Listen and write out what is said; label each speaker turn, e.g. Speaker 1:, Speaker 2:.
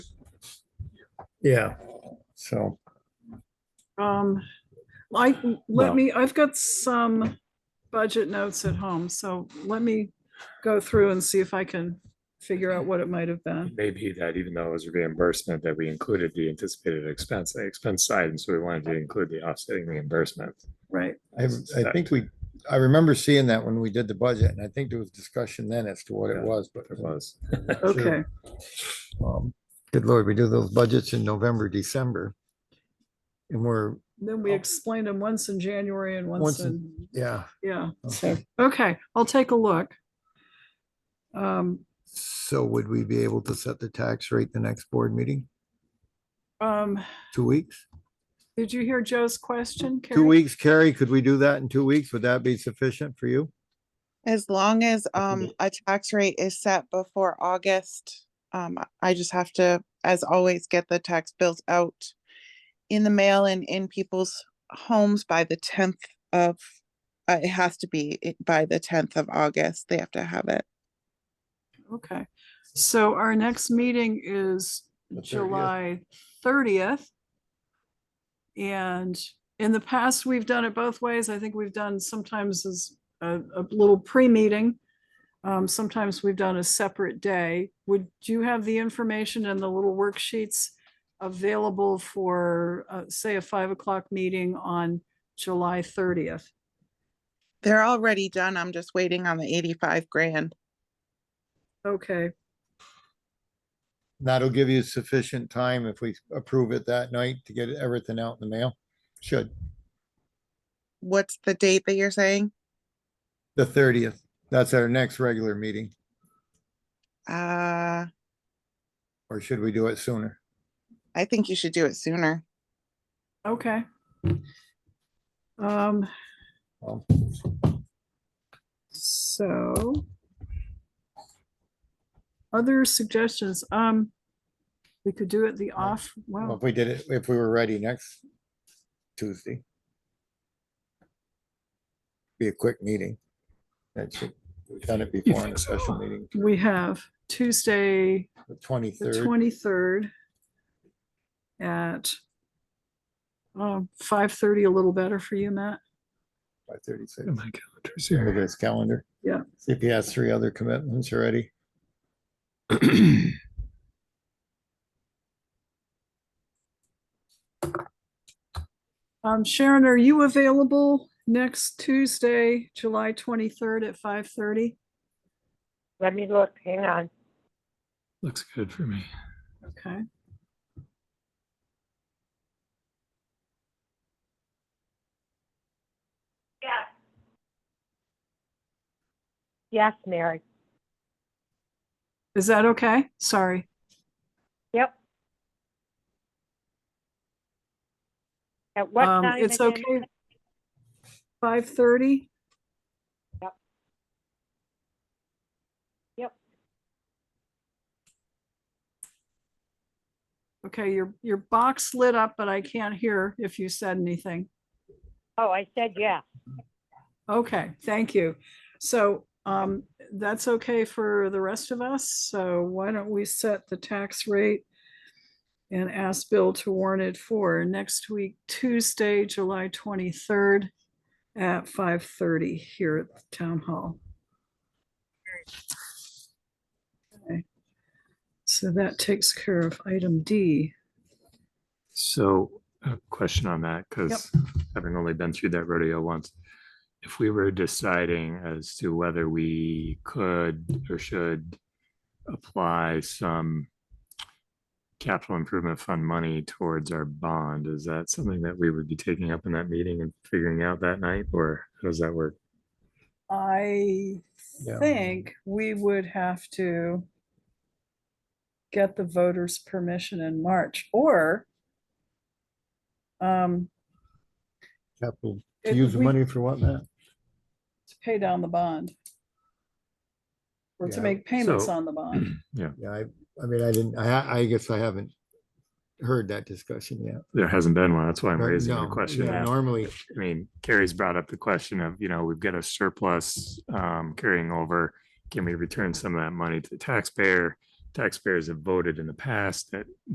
Speaker 1: Yeah, so,
Speaker 2: Um, I,
Speaker 1: Well-
Speaker 2: let me, I've got some budget notes at home, so let me go through and see if I can figure out what it might have been.
Speaker 3: Maybe that even though it was reimbursement, that we included the anticipated expense, the expense side, and so we wanted to include the offsetting reimbursement.
Speaker 2: Right,
Speaker 1: I, I think we, I remember seeing that when we did the budget, and I think there was discussion then as to what it
Speaker 3: Yeah,
Speaker 1: was, but.
Speaker 3: It was.
Speaker 2: okay.
Speaker 1: um, Good Lord, we do those budgets in November, December. And we're,
Speaker 2: Then we explained them once in January and once
Speaker 1: Oh. Once in-
Speaker 2: in,
Speaker 1: yeah,
Speaker 2: yeah, so,
Speaker 1: Okay.
Speaker 2: okay, I'll take a look. Um,
Speaker 1: so would we be able to set the tax rate the next board meeting?
Speaker 2: um,
Speaker 1: Two weeks?
Speaker 2: did you hear Joe's question?
Speaker 1: Two
Speaker 2: Carrie?
Speaker 1: weeks, Carrie, could we do that in two weeks? Would that be sufficient for you?
Speaker 4: As long as um a tax rate is set before August, um I- I just have to, as always, get the tax bills out in the mail and in people's homes by the tenth of, uh, it has to be i- by the tenth of August. They have to have it.
Speaker 2: Okay, so our next meeting is
Speaker 1: The 30th.
Speaker 2: July thirtieth. And in the past, we've done it both ways. I think we've done sometimes as a, a little pre-meeting. Um, sometimes we've done a separate day. Would you have the information and the little worksheets available for, uh, say, a five o'clock meeting on July thirtieth?
Speaker 4: They're already done. I'm just waiting on the eighty-five grand.
Speaker 2: Okay,
Speaker 1: That'll give you sufficient time if we approve it that night to get everything out in the mail. Should,
Speaker 4: What's the date that you're saying?
Speaker 1: the thirtieth. That's our next regular meeting,
Speaker 4: Uh,
Speaker 1: or should we do it sooner?
Speaker 4: I think you should do it sooner.
Speaker 2: okay. Um,
Speaker 1: Well,
Speaker 2: So. Other suggestions, um, we could do it the off,
Speaker 1: Well,
Speaker 2: well,
Speaker 1: If we did it, if we were ready next Tuesday. Be a quick meeting. That should, we've done it before in a special meeting,
Speaker 2: we have Tuesday,
Speaker 1: the
Speaker 2: the
Speaker 1: twenty-third,
Speaker 2: twenty-third. At. Um, five thirty, a little better for you, Matt.
Speaker 1: by thirty-six.
Speaker 3: My calendar's
Speaker 1: Look at his calendar.
Speaker 2: Yeah.
Speaker 1: See if he has three other commitments already.
Speaker 2: Um, Sharon, are you available next Tuesday, July twenty-third at five thirty?
Speaker 5: Let me look, hang on.
Speaker 3: Looks good for me.
Speaker 2: Okay.
Speaker 5: Yes. Yes, Mary.
Speaker 2: Is that okay? Sorry.
Speaker 5: Yep. At what
Speaker 2: Um,
Speaker 5: time?
Speaker 2: it's
Speaker 5: again?
Speaker 2: okay. Five thirty?
Speaker 5: Yep. Yep.
Speaker 2: Okay, your, your box lit up, but I can't hear if you said anything.
Speaker 5: Oh, I said yes.
Speaker 2: Okay, thank you. So um, that's okay for the rest of us. So why don't we set the tax rate and ask Bill to warn it for next week, Tuesday, July 23rd at 5:30 here at the town hall. Okay. So that takes care of item D.
Speaker 3: So a question on that, because having only been through that rodeo once. If we were deciding as to whether we could or should apply some capital improvement fund money towards our bond, is that something that we would be taking up in that meeting and figuring out that night, or how does that work?
Speaker 2: I
Speaker 1: Yeah.
Speaker 2: think we would have to get the voters' permission in March, or um,
Speaker 1: Capital,
Speaker 2: it-
Speaker 1: to use the
Speaker 2: we-
Speaker 1: money for what, Matt?
Speaker 2: to pay down the bond. Or to
Speaker 1: Yeah.
Speaker 2: make payments
Speaker 3: So-
Speaker 2: on the bond.
Speaker 1: Yeah, I, I mean, I didn't, I, ha- I guess I haven't heard that discussion yet.
Speaker 3: There hasn't been one, that's why I'm
Speaker 1: Nor-
Speaker 3: raising
Speaker 1: no,
Speaker 3: the
Speaker 1: yeah,
Speaker 3: question. now.
Speaker 1: Normally,
Speaker 3: I mean, Carrie's brought up the question of, you know, we've got a surplus um, carrying over. Can we return some of that money to the taxpayer? Taxpayers have voted in the past that